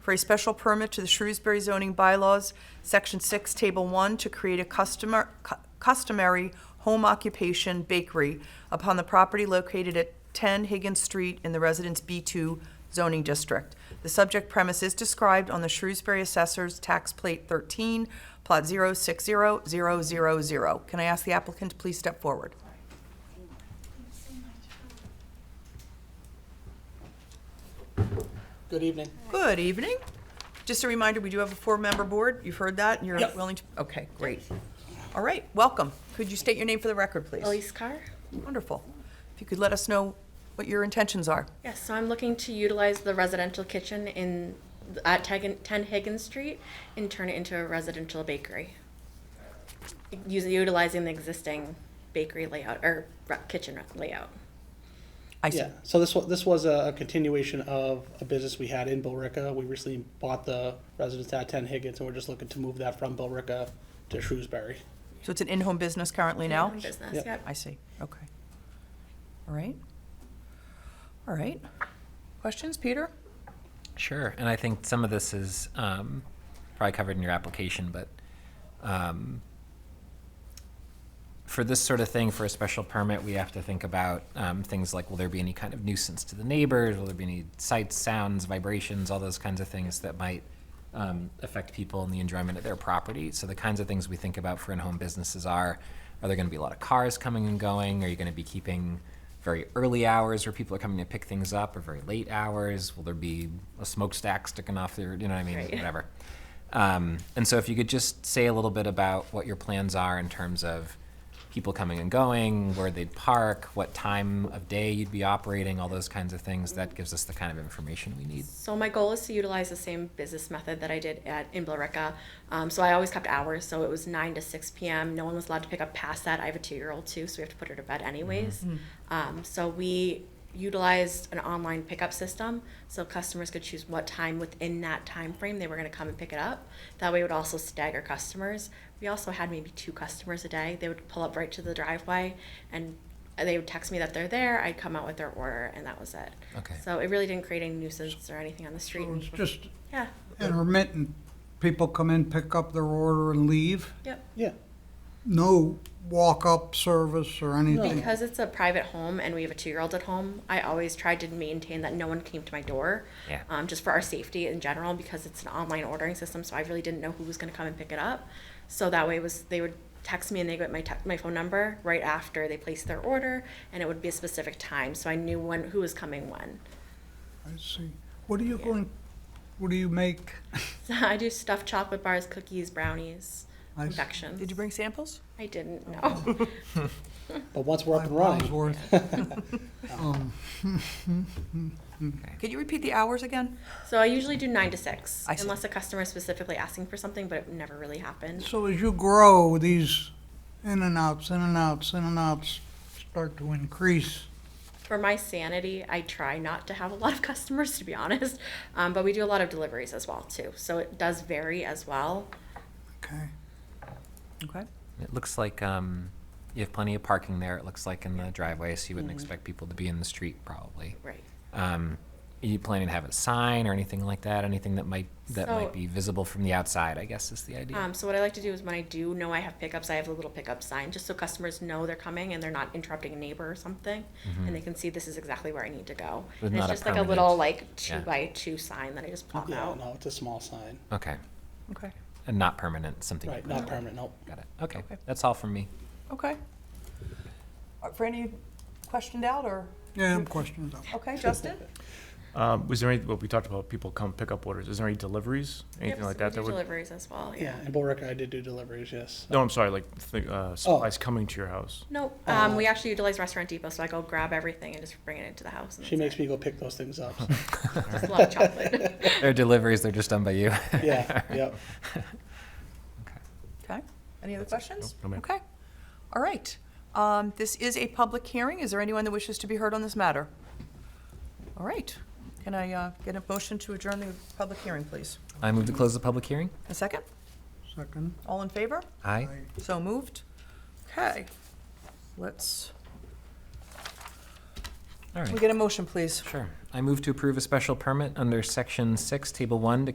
for a special permit to the Shrewsbury zoning bylaws, Section 6, Table 1, to create a customer, cu- customary home occupation bakery upon the property located at 10 Higgins Street in the Residence B2 zoning district. The subject premise is described on the Shrewsbury Assessor's Tax Plate 13, Plot 060000. Can I ask the applicant to please step forward? Good evening. Good evening. Just a reminder, we do have a four-member board. You've heard that, and you're Yep. willing to, okay, great. All right, welcome. Could you state your name for the record, please? Elise Carr? Wonderful. If you could let us know what your intentions are. Yes, so I'm looking to utilize the residential kitchen in, at Tegan- 10 Higgins Street and turn it into a residential bakery. Using, utilizing the existing bakery layout, or re- kitchen layout. I see. Yeah, so this was, this was a continuation of a business we had in Billerica. We recently bought the residence at ten Higgins, and we're just looking to move that from Billerica to Shrewsbury. So it's an in-home business currently now? Home Business, Yep. yep. I see, okay. All right. All right. Questions, Peter? Sure, and I think some of this is um, probably covered in your application, but um, for this sort of thing, for a special permit, we have to think about um, things like, will there be any kind of nuisance to the neighbors? Will there be any sights, sounds, vibrations, all those kinds of things that might um, affect people and the enjoyment of their property? So the kinds of things we think about for in-home businesses are, are there going to be a lot of cars coming and going? Are you going to be keeping very early hours where people are coming to pick things up or very late hours? Will there be a smokestack sticking off there? You know what I mean? Right. Whatever. Um, and so if you could just say a little bit about what your plans are in terms of people coming and going, where they'd park, what time of day you'd be operating, all those kinds of things, that gives us the kind of information we need. So my goal is to utilize the same business method that I did at in Billerica. Um, so I always kept hours, so it was nine to six p.m. No one was allowed to pick up past that. I have a two-year-old too, so we have to put her to bed anyways. Um, so we utilized an online pickup system, so customers could choose what time within that time frame they were going to come and pick it up. That way, it would also stagger customers. We also had maybe two customers a day. They would pull up right to the driveway and. They would text me that they're there. I'd come out with their order, and that was it. Okay. So it really didn't create any nuisance or anything on the street. So Oh, it's just Yeah, intermittent. People come in, pick up their order and leave. yep. Yeah, No walk-up service or anything. Because it's a private home and we have a two-year-old at home, I always tried to maintain that no one came to my door. Yeah. Um, just for our safety in general, because it's an online ordering system, so I really didn't know who was gonna come and pick it up. So that way was, they would text me and they got my te- my phone number right after they placed their order, and it would be a specific time, so I knew when, who was coming when. I see. What are you going, what do you make? So I do stuffed chocolate bars, cookies, brownies, I s- confections. Did you bring samples? I didn't, no. but once we're up Five and pounds running, worth. Could you repeat the hours again? So I usually do nine to six, I see. unless a customer is specifically asking for something, but it never really happens. So as you grow, these in and outs, in and outs, in and outs start to increase. For my sanity, I try not to have a lot of customers, to be honest. Um, but we do a lot of deliveries as well too, so it does vary as well. Okay. Okay. It looks like um, you have plenty of parking there, it looks like in the driveway, so you wouldn't expect people to be in the street probably. Right. Um, are you planning to have a sign or anything like that? Anything that might that So- might be visible from the outside, I guess is the idea. Um, so what I like to do is when I do know I have pickups, I have a little pickup sign just so customers know they're coming and they're not interrupting a neighbor or something, and they can see this is exactly where I need to go. But and it's not a just like a permanent- little like two yeah. by two sign that I just pop yeah, out. no, it's a small sign, okay. Okay. And not permanent, something right, like not permanent, nope. Got it. Okay. Okay. That's all from me. Okay. Are- For any questioned out or, Yeah, questions up. okay, Justin? Um, was there any, well, we talked about people come pick up orders. Is there any deliveries? Anything Yep, like so that? We that do would, deliveries as well. Yeah. Yeah, in Billerica, I did do deliveries, yes. No, I'm sorry, like th- uh, supplies coming to your house. Nope. Oh. Um, we actually utilize Restaurant Depot, so I go grab everything and just bring it into the house. And She that's makes it. me go pick those things up, so, Just love chocolate. They're deliveries, they're just done by you. yeah, yep. Okay. Any other questions? No, no, ma'am. Okay. All right. Um, This is a public hearing. Is there anyone that wishes to be heard on this matter? All right. Can I uh, get a motion to adjourn the public hearing, please? I move to close the public hearing. A second? Second. All in favor? Aye. So moved. Okay. Let's, we All right. get a motion, please? Sure. I move to approve a special permit under Section 6, Table 1, to